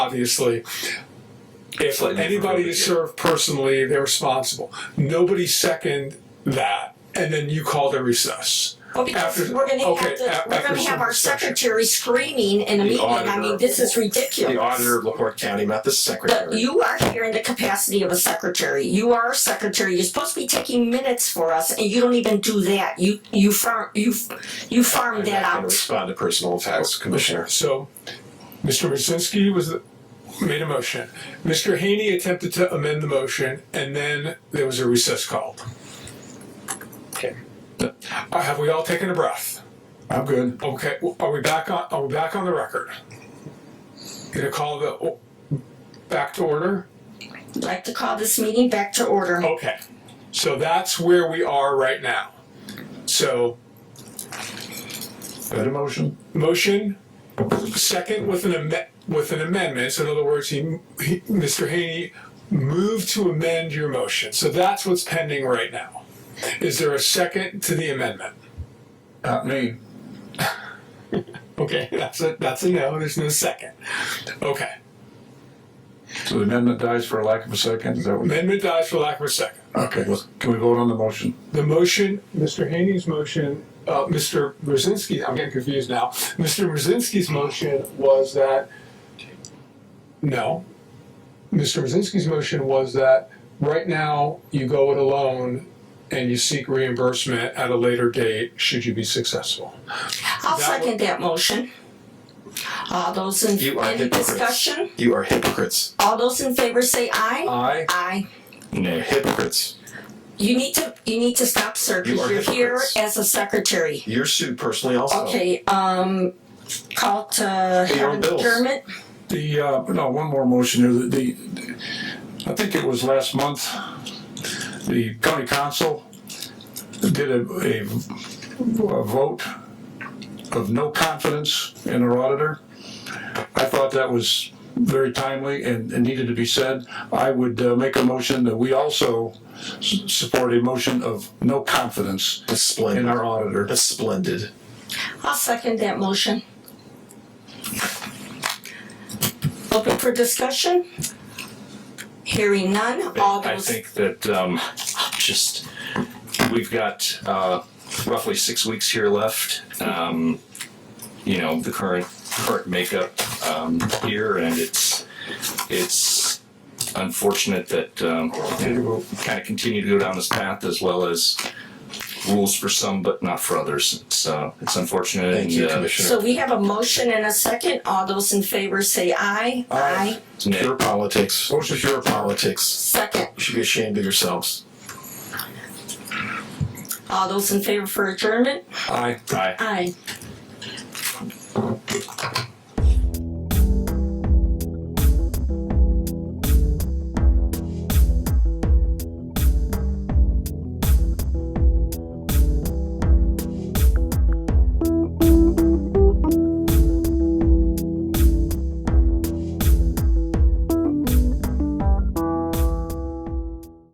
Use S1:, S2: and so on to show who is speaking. S1: obviously. If
S2: Slightly
S1: anybody
S2: provocative.
S1: is served personally, they're responsible. Nobody second that, and then you called a recess.
S3: Well, because
S1: After-
S3: we're gonna
S1: okay,
S3: have to,
S1: a-
S3: we're
S1: after
S3: gonna have our
S1: certain session.
S3: secretary screaming in a
S2: The
S3: meeting, I
S2: auditor.
S3: mean, this is ridiculous.
S2: The auditor of LaPorte County, not the
S3: But
S2: secretary.
S3: you are here in the capacity of a secretary, you are a secretary, you're supposed to be taking minutes for us, and you don't even do that, you, you farm, you, you farm
S2: I'm
S3: that
S2: not gonna
S3: out.
S2: respond to personal attacks, Commissioner.
S1: So, Mr. Brzezinski was, the- made a motion. Mr. Haney attempted to amend the motion, and then there was a recess called. Okay. Uh, Have we all taken a breath?
S4: I'm good.
S1: Okay, w- are we back on, are we back on the record? Gonna call the, oh, back to order?
S3: I'd Like to call this meeting back to order.
S2: Oh,
S1: Okay, so that's where we are right now. So,
S4: Got a motion?
S1: motion, second with an amendment, with an amendment, so in other words, he, he, Mr. Haney moved to amend your motion, so that's what's pending right now. Is there a second to the amendment?
S4: Not Uh, me.
S1: Okay, that's a, that's a no, there's no second. Okay,
S4: So the amendment dies for lack of a second, is that what?
S1: amendment dies for lack of a second.
S4: Okay, well, can we vote on the motion?
S1: The motion, Mr. Haney's motion, uh, Mr. Brzezinski, I'm getting confused now. Mr. Brzezinski's motion was that, no. Mr. Brzezinski's motion was that right now you go it alone and you seek reimbursement at a later date should you be successful. That
S3: I'll
S1: would-
S3: second that motion. All those in,
S2: You are
S3: any
S2: hypocrites.
S3: discussion?
S2: You are hypocrites.
S3: All those in favor say aye.
S1: Aye.
S3: Aye.
S2: Nay. Hypocrites.
S3: You need to, you need to stop, sir,
S2: You
S3: because
S2: are
S3: you're here
S2: hypocrites.
S3: as a secretary.
S2: You're sued personally also.
S3: Okay, um, call to
S2: Pay your
S3: have
S2: own
S3: an
S2: bills.
S3: adjournment.
S4: The, uh, no, one more motion here, the, the- I think it was last month, the county council did a, a a vote of no confidence in our auditor. I thought that was very timely and and needed to be said. I would uh, make a motion that we also s- support a motion of no confidence
S2: That's
S4: in
S2: splendid.
S4: our auditor.
S2: That's splendid.
S3: I'll second that motion. Open for discussion? Hearing none, all
S5: I
S3: those,
S5: think that um, just we've got uh, roughly six weeks here left. Um, you know the current current makeup um, here, and it's it's unfortunate that um, kind of continue to go down this path as well as rules for some but not for others. It's uh, it's unfortunate.
S2: Thank you,
S5: and, uh,
S2: Commissioner.
S3: so we have a motion and a second. All those in favor say aye. Aye.
S5: it's Nick.
S2: Pure politics.
S4: Motion.
S2: Pure politics.
S3: Second,
S2: You should be ashamed of yourselves.
S3: all those in favor for adjournment?
S4: Aye.
S5: Hi.
S3: Aye.